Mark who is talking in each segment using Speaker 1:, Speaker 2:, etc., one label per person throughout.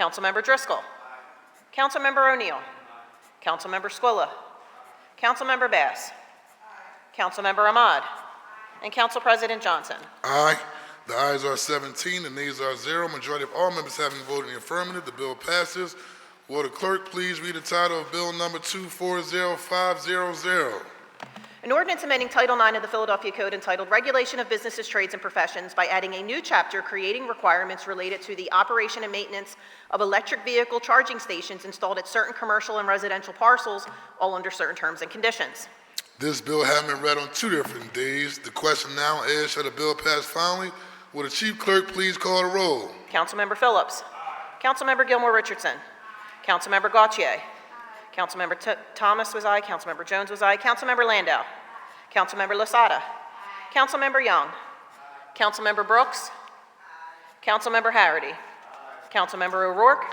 Speaker 1: Councilmember Driscoll. Councilmember O'Neill. Councilmember Squilla. Councilmember Bass. Councilmember Ahmad. And Council President Johnson.
Speaker 2: Aye. The ayes are 17, the nays are zero. Majority of all members having voted in the affirmative, the bill passes. Will the clerk please read the title of Bill Number 240500?
Speaker 1: An ordinance amending Title IX of the Philadelphia Code entitled Regulation of Businesses, Trades, and Professions by adding a new chapter creating requirements related to the operation and maintenance of electric vehicle charging stations installed at certain commercial and residential parcels, all under certain terms and conditions.
Speaker 2: This bill having been read on two different days, the question now is, shall the bill pass finally? Will the chief clerk please call the roll?
Speaker 1: Councilmember Phillips. Councilmember Gilmore Richardson. Councilmember Gautier. Councilmember T- Thomas was aye, Councilmember Jones was aye, Councilmember Landau. Councilmember Lasada. Councilmember Young. Councilmember Brooks. Councilmember Harity. Councilmember O'Rourke.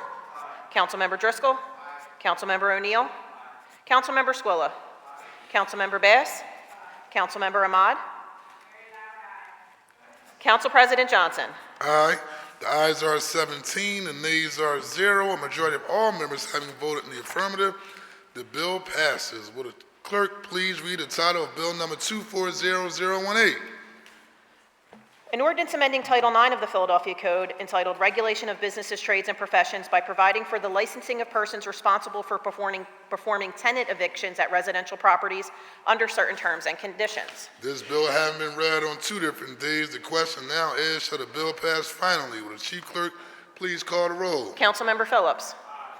Speaker 1: Councilmember Driscoll. Councilmember O'Neill. Councilmember Squilla. Councilmember Bass. Councilmember Ahmad. Council President Johnson.
Speaker 2: Aye. The ayes are 17, the nays are zero. A majority of all members having voted in the affirmative, the bill passes. Will the clerk please read the title of Bill Number 240018?
Speaker 1: An ordinance amending Title IX of the Philadelphia Code entitled Regulation of Businesses, Trades, and Professions by providing for the licensing of persons responsible for performing, performing tenant evictions at residential properties under certain terms and conditions.
Speaker 2: This bill having been read on two different days, the question now is, shall the bill pass finally? Will the chief clerk please call the roll?
Speaker 1: Councilmember Phillips.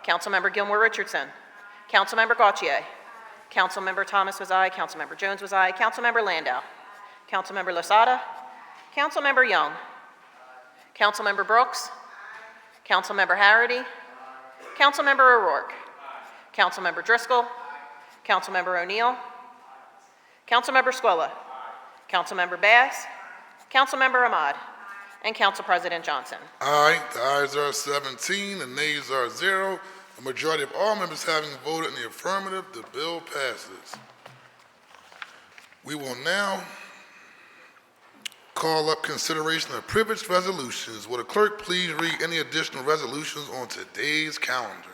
Speaker 1: Councilmember Gilmore Richardson. Councilmember Gautier. Councilmember Thomas was aye. Councilmember Jones was aye. Councilmember Landau. Councilmember Lasada. Councilmember Young. Councilmember Brooks. Councilmember Harity. Councilmember O'Rourke. Councilmember Driscoll. Councilmember O'Neill. Councilmember Squilla. Councilmember Bass. Councilmember Ahmad. And Council President Johnson.
Speaker 2: Aye. The ayes are 17, the nays are zero. A majority of all members having voted in the affirmative, the bill passes. We will now call up consideration of privileged resolutions. Will the clerk please read any additional resolutions on today's calendar?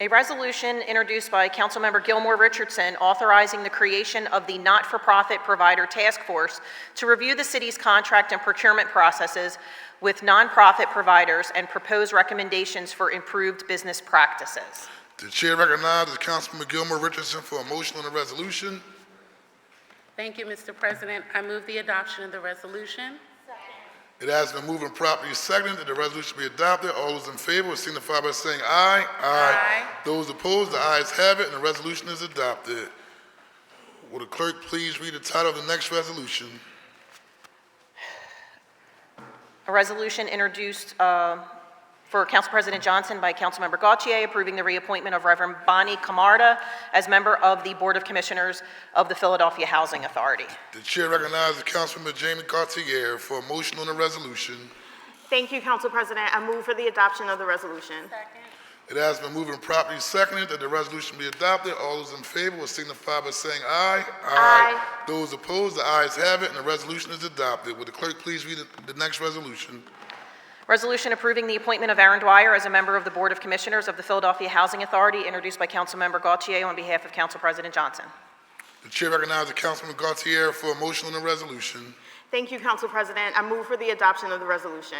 Speaker 1: A resolution introduced by Councilmember Gilmore Richardson authorizing the creation of the Not-for-Profit Provider Task Force to review the city's contract and procurement processes with nonprofit providers and propose recommendations for improved business practices.
Speaker 2: The chair recognizes Councilman Gilmer Richardson for a motion on the resolution.
Speaker 3: Thank you, Mr. President. I move the adoption of the resolution.
Speaker 2: It has been moved and properly seconded that the resolution be adopted. All those in favor will signify by saying aye.
Speaker 3: Aye.
Speaker 2: Those opposed, the ayes have it, and the resolution is adopted. Will the clerk please read the title of the next resolution?
Speaker 1: A resolution introduced uh, for Council President Johnson by Councilmember Gautier approving the reappointment of Reverend Bonnie Camarda as member of the Board of Commissioners of the Philadelphia Housing Authority.
Speaker 2: The chair recognizes Councilmember Jamie Cartier for a motion on the resolution.
Speaker 4: Thank you, Council President. I move for the adoption of the resolution.
Speaker 2: It has been moved and properly seconded that the resolution be adopted. All those in favor will signify by saying aye.
Speaker 4: Aye.
Speaker 2: Those opposed, the ayes have it, and the resolution is adopted. Will the clerk please read the the next resolution?
Speaker 1: Resolution approving the appointment of Aaron Dwyer as a member of the Board of Commissioners of the Philadelphia Housing Authority, introduced by Councilmember Gautier on behalf of Council President Johnson.
Speaker 2: The chair recognizes Councilman Gaultier for a motion on the resolution.
Speaker 4: Thank you, Council President. I move for the adoption of the resolution.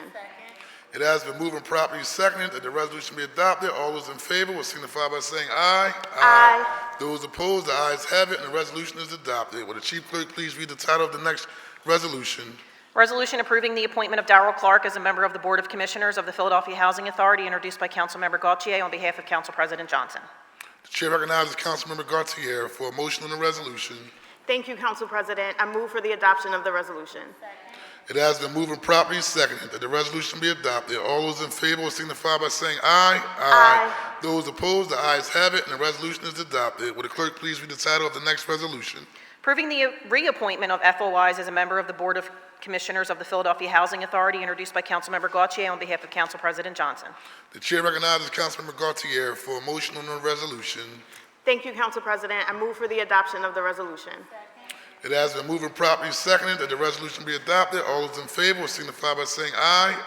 Speaker 2: It has been moved and properly seconded that the resolution be adopted. All those in favor will signify by saying aye.
Speaker 4: Aye.
Speaker 2: Those opposed, the ayes have it, and the resolution is adopted. Will the chief clerk please read the title of the next resolution?
Speaker 1: Resolution approving the appointment of Darrell Clark as a member of the Board of Commissioners of the Philadelphia Housing Authority, introduced by Councilmember Gautier on behalf of Council President Johnson.
Speaker 2: The chair recognizes Councilmember Gaultier for a motion on the resolution.
Speaker 4: Thank you, Council President. I move for the adoption of the resolution.
Speaker 2: It has been moved and properly seconded that the resolution be adopted. All those in favor will signify by saying aye.
Speaker 4: Aye.
Speaker 2: Those opposed, the ayes have it, and the resolution is adopted. Will the clerk please read the title of the next resolution?
Speaker 1: Approving the reappointment of Ethel Wise as a member of the Board of Commissioners of the Philadelphia Housing Authority, introduced by Councilmember Gautier on behalf of Council President Johnson.
Speaker 2: The chair recognizes Councilmember Gaultier for a motion on the resolution.
Speaker 4: Thank you, Council President. I move for the adoption of the resolution.
Speaker 2: It has been moved and properly seconded that the resolution be adopted. All those in favor will signify by saying aye.